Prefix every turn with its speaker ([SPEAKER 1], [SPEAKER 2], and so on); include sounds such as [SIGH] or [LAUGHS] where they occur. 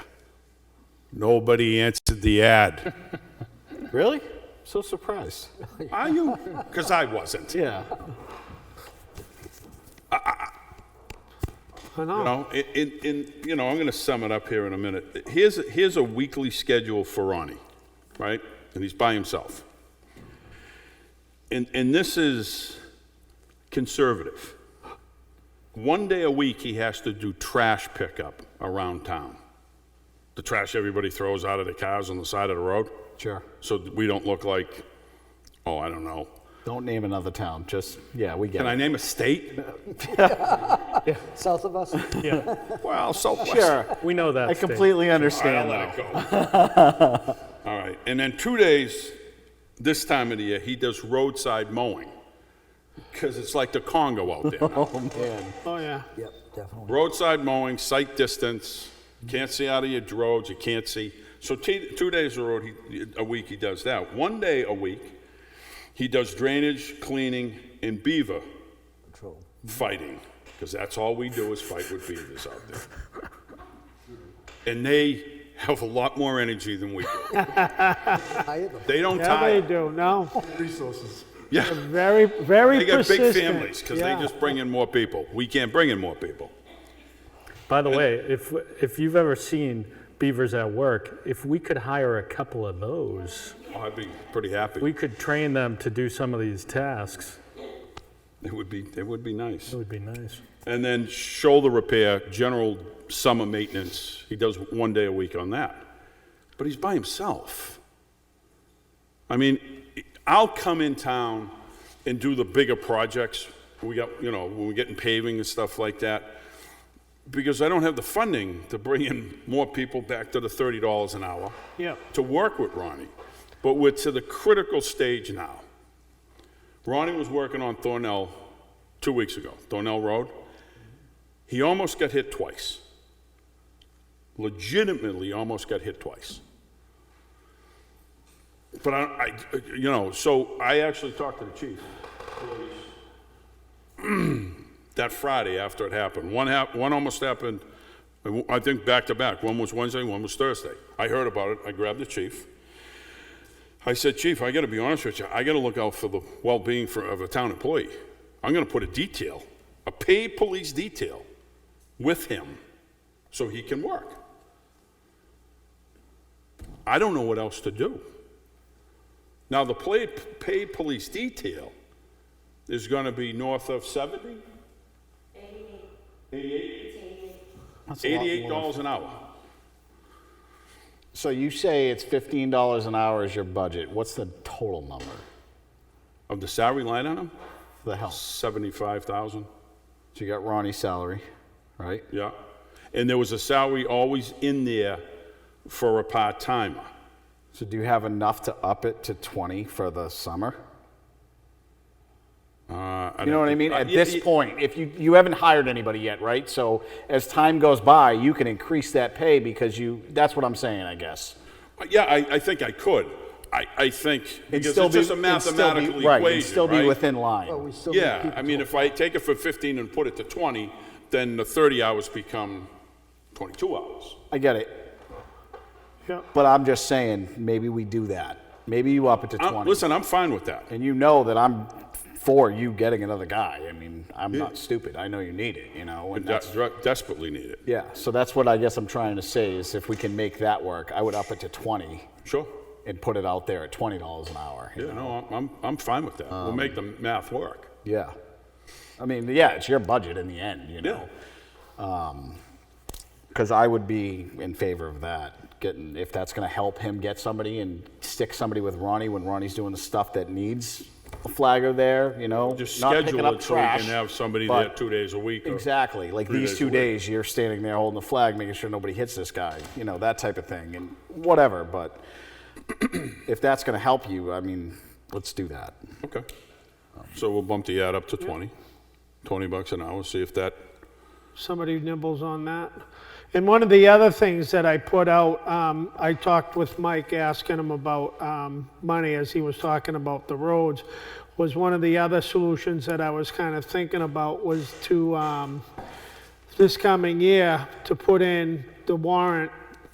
[SPEAKER 1] Nobody answered the ad.
[SPEAKER 2] Really? So surprised.
[SPEAKER 1] [LAUGHS] Are you? Because I wasn't. You
[SPEAKER 2] Yeah. I know.
[SPEAKER 1] know, in- in, in, you know, I'm going to sum it up here in a minute. Here's, here's a weekly schedule for Ronnie, right? And he's by himself. And, and this is conservative. One day a week, he has to do trash pickup around town. The trash everybody throws out of their cars on the side of the road.
[SPEAKER 2] Sure.
[SPEAKER 1] So we don't look like, oh, I don't know.
[SPEAKER 2] Don't name another town. Just, yeah, we get
[SPEAKER 1] Can I
[SPEAKER 2] it.
[SPEAKER 1] name a state?
[SPEAKER 3] South of us?
[SPEAKER 2] [LAUGHS]
[SPEAKER 4] Yeah,
[SPEAKER 1] Well, Southwest.
[SPEAKER 2] Sure.
[SPEAKER 4] we know that.
[SPEAKER 2] I
[SPEAKER 4] state.
[SPEAKER 2] completely
[SPEAKER 1] All right, I'll
[SPEAKER 2] understand
[SPEAKER 1] let it
[SPEAKER 2] that.
[SPEAKER 1] go. All right, and then two days, this time of the year, he does roadside mowing, because it's like the Congo out there now.
[SPEAKER 2] Oh, yeah.
[SPEAKER 3] Yep, definitely.
[SPEAKER 1] Roadside mowing, sight distance, can't see out of your roads, you can't see. So t- two days a road, he, a week, he does that. One day a week, he does drainage, cleaning, and beaver
[SPEAKER 3] Patrol.
[SPEAKER 1] fighting, because that's all we do is fight with beavers out there. And they have a lot more energy than
[SPEAKER 5] [LAUGHS]
[SPEAKER 1] we do.
[SPEAKER 3] I have a
[SPEAKER 1] They don't
[SPEAKER 5] Yeah, they
[SPEAKER 1] tire.
[SPEAKER 5] do, no.
[SPEAKER 1] Yeah,
[SPEAKER 5] Very, very
[SPEAKER 1] they got big
[SPEAKER 5] persistent.
[SPEAKER 1] families because
[SPEAKER 5] Yeah.
[SPEAKER 1] they just bring in more people. We can't bring in more people.
[SPEAKER 4] By the way, if if you've ever seen beavers at work, if we could hire a couple of those,
[SPEAKER 1] I'd be pretty happy.
[SPEAKER 4] we could train them to do some of these tasks.
[SPEAKER 1] It would be, it would be nice.
[SPEAKER 4] It would be nice.
[SPEAKER 1] And then shoulder repair, general summer maintenance. He does one day a week on that. But he's by himself. I mean, I'll come in town and do the bigger projects. We got, you know, when we're getting paving and stuff like that. Because I don't have the funding to bring in more people back to the $30 an hour.
[SPEAKER 5] Yep.
[SPEAKER 1] to work with Ronnie, but we're to the critical stage now. Ronnie was working on Thornell two weeks ago, Thornell Road. He almost got hit twice. Legitimately, almost got hit twice. But I, I- you know, so I actually talked to the chief that Friday after it happened. One hap, one almost happened, I think back to back. One was Wednesday, one was Thursday. I heard about it. I grabbed the chief. I said, Chief, I got to be honest with you. I got to look out for the well-being for, of a town employee. I'm going to put a detail, a paid police detail, with him, so he can work. I don't know what else to do. Now the paid, paid police detail is going to be north of 70? 88.
[SPEAKER 2] That's a lot
[SPEAKER 1] 88
[SPEAKER 2] more.
[SPEAKER 1] dollars an hour.
[SPEAKER 2] So you say it's $15 an hour is your budget. What's the total number?
[SPEAKER 1] Of the salary line on him,
[SPEAKER 2] The help. So
[SPEAKER 1] 75,000,
[SPEAKER 2] you got Ronnie's salary, right?
[SPEAKER 1] yeah. And there was a salary always in there for a part-timer.
[SPEAKER 2] So do you have enough to up it to 20 for the summer?
[SPEAKER 1] Uh,
[SPEAKER 2] You know what I mean? At this point, if you you haven't hired anybody yet, right? So as time goes by, you can increase that pay because you. That's what I'm saying, I guess.
[SPEAKER 1] Yeah, I, I think I could. I, I think,
[SPEAKER 2] It'd
[SPEAKER 1] because
[SPEAKER 2] still
[SPEAKER 1] it's just a
[SPEAKER 2] be- it'd still be-
[SPEAKER 1] mathematical equation,
[SPEAKER 2] right?
[SPEAKER 1] right?
[SPEAKER 2] It'd still be within line.
[SPEAKER 3] But we still need
[SPEAKER 1] Yeah,
[SPEAKER 3] people
[SPEAKER 1] I mean,
[SPEAKER 3] to-
[SPEAKER 1] if I take it for 15 and put it to 20, then the 30 hours become 22 hours.
[SPEAKER 2] I get it.
[SPEAKER 5] Yep.
[SPEAKER 2] But I'm just saying, maybe we do that. Maybe you up it to
[SPEAKER 1] I'm-
[SPEAKER 2] 20,
[SPEAKER 1] Uh, Listen, I'm fine with that.
[SPEAKER 2] and you know that I'm for you getting another guy. I mean, I'm not stupid. I know you need it. You know, and
[SPEAKER 1] De-
[SPEAKER 2] that's
[SPEAKER 1] dre- Desperately need it.
[SPEAKER 2] yeah. So that's what I guess I'm trying to say is if we can make that work, I would up it to 20
[SPEAKER 1] Sure.
[SPEAKER 2] and put it out there at 20 dollars an hour. you
[SPEAKER 1] Yeah, no, I'm- I'm, I'm fine with that.
[SPEAKER 2] Um,
[SPEAKER 1] We'll make the math work.
[SPEAKER 2] Yeah. I mean, yeah, it's your budget in the end, you
[SPEAKER 1] Yeah.
[SPEAKER 2] know. Because I would be in favor of that. Getting if that's going to help him get somebody and stick somebody with Ronnie when Ronnie's doing the stuff that needs a flagger there, you know.
[SPEAKER 1] Just
[SPEAKER 2] not picking
[SPEAKER 1] schedule
[SPEAKER 2] up
[SPEAKER 1] it so we can
[SPEAKER 2] trash,
[SPEAKER 1] have somebody
[SPEAKER 2] but-
[SPEAKER 1] there two days a week. or-
[SPEAKER 2] Exactly. Like
[SPEAKER 1] three
[SPEAKER 2] these
[SPEAKER 1] days
[SPEAKER 2] two
[SPEAKER 1] a week.
[SPEAKER 2] days, you're standing there holding the flag, making sure nobody hits this guy, you know, that type of thing, and whatever. But [CLEARS THROAT] if that's going to help you, I mean, let's do that.
[SPEAKER 1] Okay. So we'll bump the ad up to 20, 20 bucks an hour, see if that,
[SPEAKER 5] somebody nibbles on that. And one of the other things that I put out, um, I talked with Mike asking him about um, money as he was talking about the roads, was one of the other solutions that I was kind of thinking about was to, um, this coming year, to put in the warrant